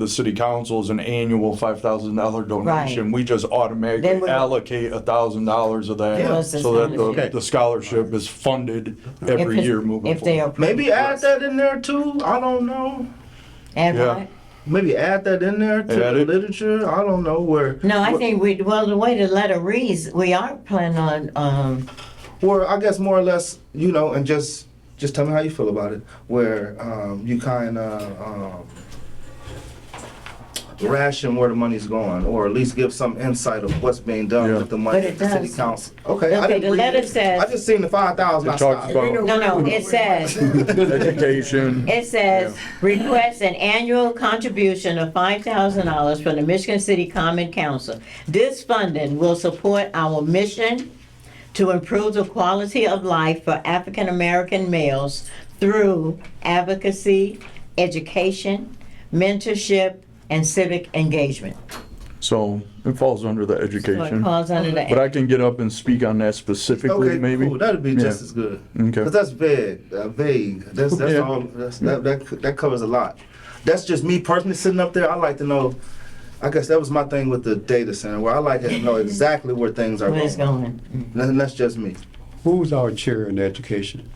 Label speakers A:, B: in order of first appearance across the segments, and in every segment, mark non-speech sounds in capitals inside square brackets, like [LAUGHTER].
A: the city council is an annual five thousand dollar donation. We just
B: Then
A: automatically
B: we-
A: allocate a thousand dollars of
B: Give
A: that,
B: us this
A: so that
B: money.
A: the, the scholarship is funded
B: If
A: every
B: it's-
A: year moving
B: If they
A: forward.
B: are.
C: Maybe add that in there too. I don't know.
B: And
A: Yeah.
B: what?
C: Maybe add that in there to
A: Add
C: the
A: it.
C: literature. I don't know where.
B: No, I
C: where-
B: think we, well, the way the letter reads, we are planning on, um,
C: where I guess more or less, you know, and just just tell me how you feel about it. Where um, you kind of um, ration where the money's going, or at least give some insight of what's being done
A: Yeah.
C: with the money
B: But
C: at
B: it
C: the city
B: does.
C: council. Okay, I
B: Okay,
C: didn't
B: the
C: read
B: letter
C: it.
B: says-
C: I just seen the five thousand. I
A: It talks
C: stopped.
A: about
B: no, no, it says,
A: [LAUGHS] education.
B: It says, request an annual contribution of five thousand dollars from the Michigan City Common Council. This funding will support our mission to improve the quality of life for African-American males through advocacy, education, mentorship, and civic engagement.
A: So it falls under the
B: So it
A: education.
B: falls under the.
A: But I can get up and speak on that specifically,
C: Okay,
A: maybe.
C: cool. That'd be
A: Yeah.
C: just as good.
A: Okay.
C: Cause that's vague. Uh, vague. That's that's
A: Yeah.
C: all. That's, that, that that covers a lot. That's just me personally sitting up there. I like to know. I guess that was my thing with the data center, where I like to
B: [LAUGHS]
C: know exactly where things are
B: Where it's
C: going.
B: going.
C: That- that's just me.
D: Who's our chair in education?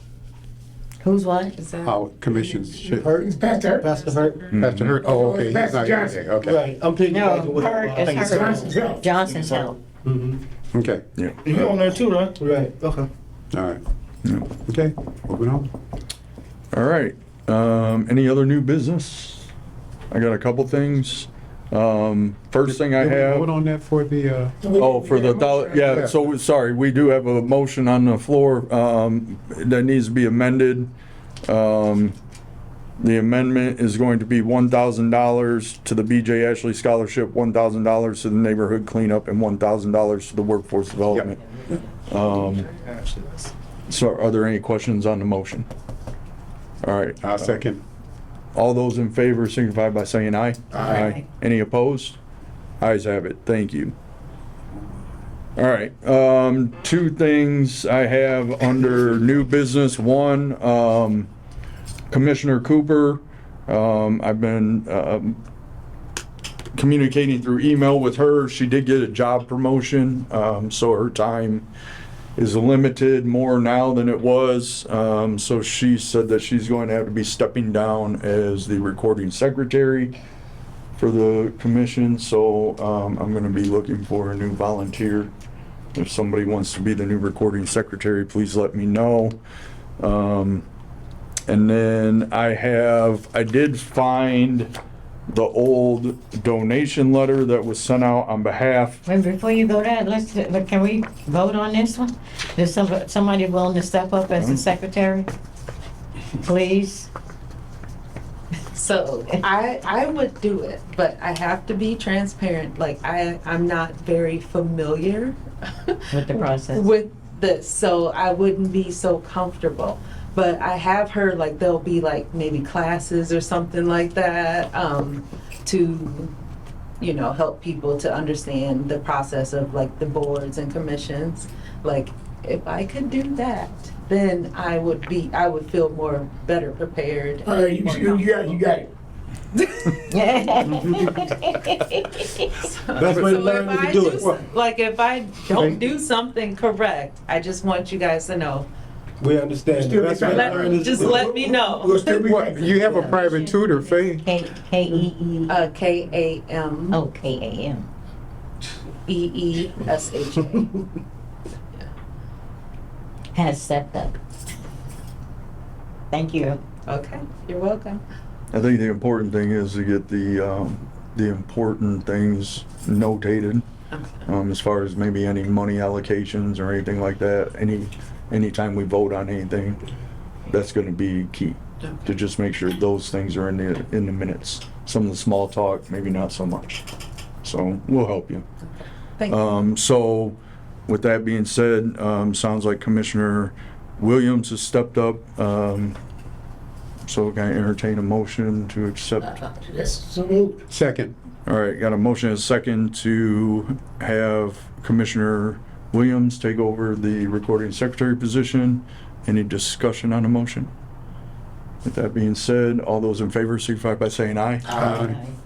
B: Who's what?
D: Our commission's chair?
E: It's Pastor Hurt.
F: Pastor Hurt.
D: Pastor Hurt, oh, okay. he's
E: Pastor
D: not here
E: Johnson.
D: today, Okay,
F: Right, I'm taking.
B: No, her,
F: I think
B: it's
F: it's
B: her.
E: Johnson's Health.
B: Johnson's Health.
F: Mhm.
D: Mm-hmm. okay,
C: You on there too, right?
F: Right.
C: Okay.
D: all right.
A: Yeah.
D: Okay, moving on.
A: All right. Um, any other new business? I got a couple things. Um, first thing I
D: Did we Vote
A: have,
D: on that for the, uh,
A: oh, for the dollar, yeah,
D: Yeah.
A: so, we- sorry, we do have a motion on the floor, um, that needs to be amended. Um, the amendment is going to be one thousand dollars to the BJ Ashley Scholarship, one thousand dollars to the neighborhood cleanup, and one thousand dollars to the workforce development. Um,
C: Actually, that's-
A: so are there any questions on the motion? All right,
D: our second,
A: all those in favor signify by saying aye. Aye. Any opposed? Ayes have it. Thank you. All right, um, two things I have under new business. One, um, Commissioner Cooper, um, I've been, um, communicating through email with her. She did get a job promotion, um, so her time is limited more now than it was. Um, so she said that she's going to have to be stepping down as the recording secretary for the commission. So um, I'm going to be looking for a new volunteer. If somebody wants to be the new recording secretary, please let me know. Um, and then I have, I did find the old donation letter that was sent out on behalf
B: Wait, before you go there, let's, can we vote on this one? Is somebody, somebody willing to step up as
F: Mm-hmm.
B: the secretary?
F: [LAUGHS]
B: Please?
G: So I I would do it, but I have to be transparent. Like I I'm not very familiar
B: With the process.
G: [LAUGHS] with this, so I wouldn't be so comfortable. But I have heard like there'll be like maybe classes or something like that um, to you know help people to understand the process of like the boards and commissions. Like if I could do that, then I would be I would feel more better prepared.
E: All right, Uh, you, you you got, it, you got it.
F: Best way to
G: So
F: learn
G: if
F: is to
G: I
F: do
G: do
F: it.
G: so- Like, if I don't do something correct, I just want you guys to know.
F: We understand. The
E: Still
F: best way to
E: be trying.
F: learn is to
G: Just
F: do it.
G: let me know.
E: We'll still be
D: What,
E: fighting.
D: you have a private tutor,
E: [LAUGHS]
D: Faye?
B: K, K E E,
G: Uh, K A M
B: oh, K A M.
G: E E S
F: [LAUGHS]
G: H A.
B: Has stepped up. Thank you.
G: Okay, you're welcome.
A: I think the important thing is to get the, um, the important things notated, um, as far as maybe any money allocations or anything like that, any, anytime we vote on anything, that's gonna be key, to just make sure those things are in the, in the minutes. Some of the small talk, maybe not so much, so we'll help you.
G: Thank you.
A: Um, so, with that being said, um, sounds like Commissioner Williams has stepped up. Um, so can I entertain a motion to
E: [LAUGHS]
A: accept?
E: That's so moved.
D: Second,
A: All right, got a motion and a second to have Commissioner Williams take over the recording secretary position. Any discussion on a motion? With that being said, all those in favor signify by saying aye.
D: Aye.